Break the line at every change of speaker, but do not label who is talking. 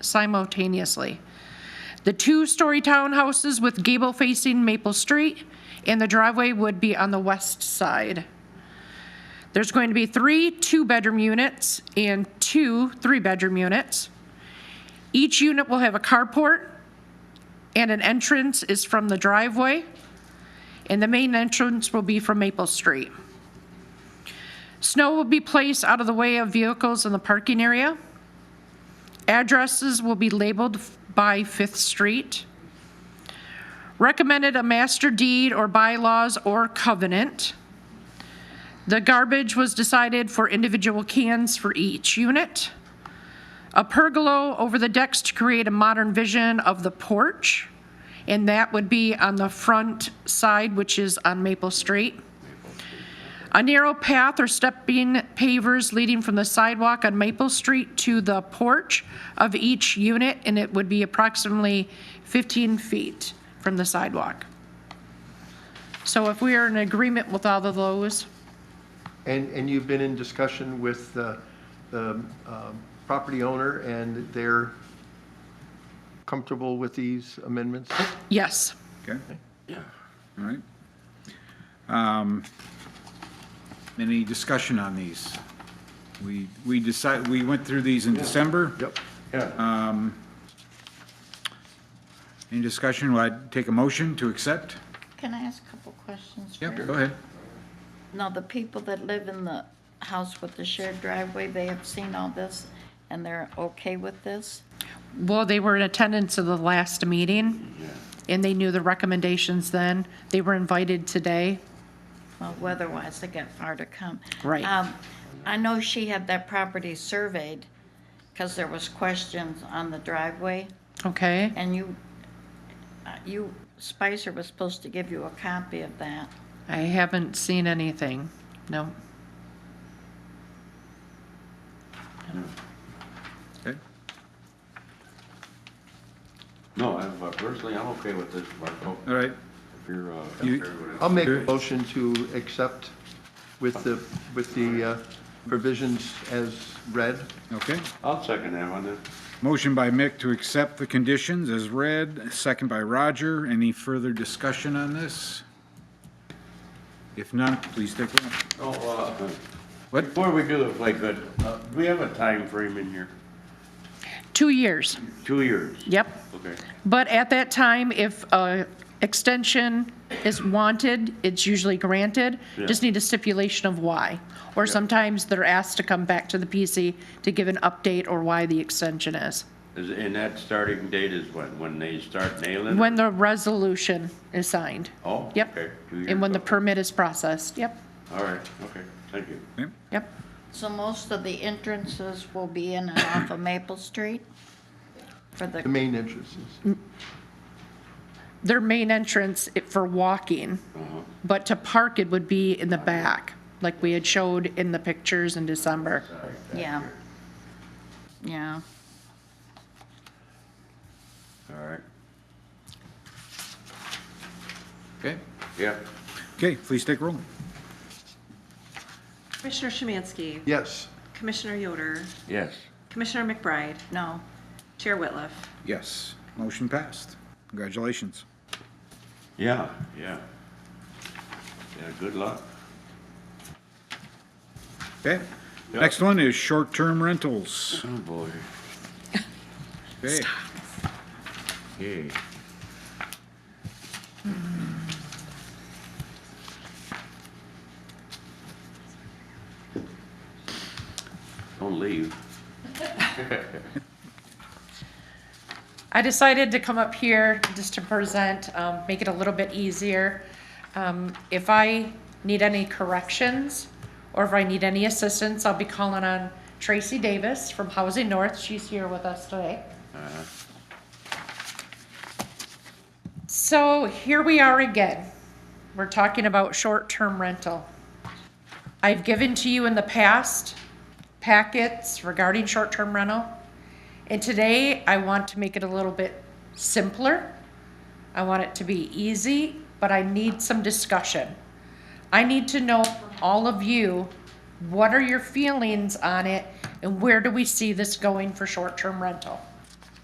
simultaneously. The two-story townhouses with gable facing Maple Street, and the driveway would be on the west side. There's going to be three two-bedroom units and two three-bedroom units. Each unit will have a carport, and an entrance is from the driveway, and the main entrance will be from Maple Street. Snow will be placed out of the way of vehicles in the parking area. Addresses will be labeled f- by Fifth Street. Recommended a master deed or bylaws or covenant. The garbage was decided for individual cans for each unit. A pergola over the decks to create a modern vision of the porch, and that would be on the front side, which is on Maple Street. A narrow path or stepping pavers leading from the sidewalk on Maple Street to the porch of each unit, and it would be approximately 15 feet from the sidewalk. So if we are in agreement with all of those,
And, and you've been in discussion with the, the um, property owner, and they're comfortable with these amendments?
yes.
Okay? All right. Um, Any discussion on these? We, we decide, we went through these in December.
Yep.
Uh,
Any discussion? Well, I'd take a motion to accept.
Can I ask a couple questions?
Yep,
first?
go ahead.
Now, the people that live in the house with the shared driveway, they have seen all this and they're okay with this?
Well, they were in attendance of the last meeting, and they knew the recommendations then. They were invited today.
Well, weather-wise, they got far to come.
Right.
Um, I know she had that property surveyed because there was questions on the driveway
Okay,
and you, uh, you, Spicer was supposed to give you a copy of that.
I haven't seen anything, no.
Okay.
No, I'm, uh, personally, I'm okay with this, Marco.
All right.
If you're, uh,
You-
if everybody else-
I'll make a motion to accept with the, with the uh, provisions as read.
Okay.
I'll second that one then.
Motion by Mick to accept the conditions as read, second by Roger. Any further discussion on this? If none, please take roll.
Oh, uh,
What?
before we do the play good, uh, do we have a time frame in here?
Two years,
Two years?
yep.
Okay.
But at that time, if a extension is wanted, it's usually granted. Just
Yeah.
need a stipulation of why. Or sometimes they're asked to come back to the PC to give an update or why the extension is.
Is, and that starting date is when, when they start nailing? it?
When the resolution is signed.
Oh,
Yep.
okay. Two years,
And when the
okay.
permit is processed, yep,
All right, okay, thank you.
Okay.
yep.
So most of the entrances will be in and off of Maple Street for
The
the,
main entrances.
Their main entrance i- for walking,
Uh-huh.
but to park it would be in the back, like we had showed in the pictures in December.
yeah. Yeah.
All right,
Okay.
yeah.
Okay, please take roll.
Commissioner Szymanski.
Yes,
Commissioner Yoder.
Yes.
Commissioner McBride.
No,
Chair Whitliff.
Yes. Motion passed. Congratulations.
Yeah, yeah. Yeah, good luck.
Okay. Next one is short-term rentals.
Oh, boy.
Okay.
Hey. Don't leave.
I decided to come up here just to present, um, make it a little bit easier. Um, if I need any corrections or if I need any assistance, I'll be calling on Tracy Davis from Housing North. She's here with us today. So here we are again. We're talking about short-term rental. I've given to you in the past packets regarding short-term rental. And today, I want to make it a little bit simpler. I want it to be easy, but I need some discussion. I need to know from all of you, what are your feelings on it? And where do we see this going for short-term rental?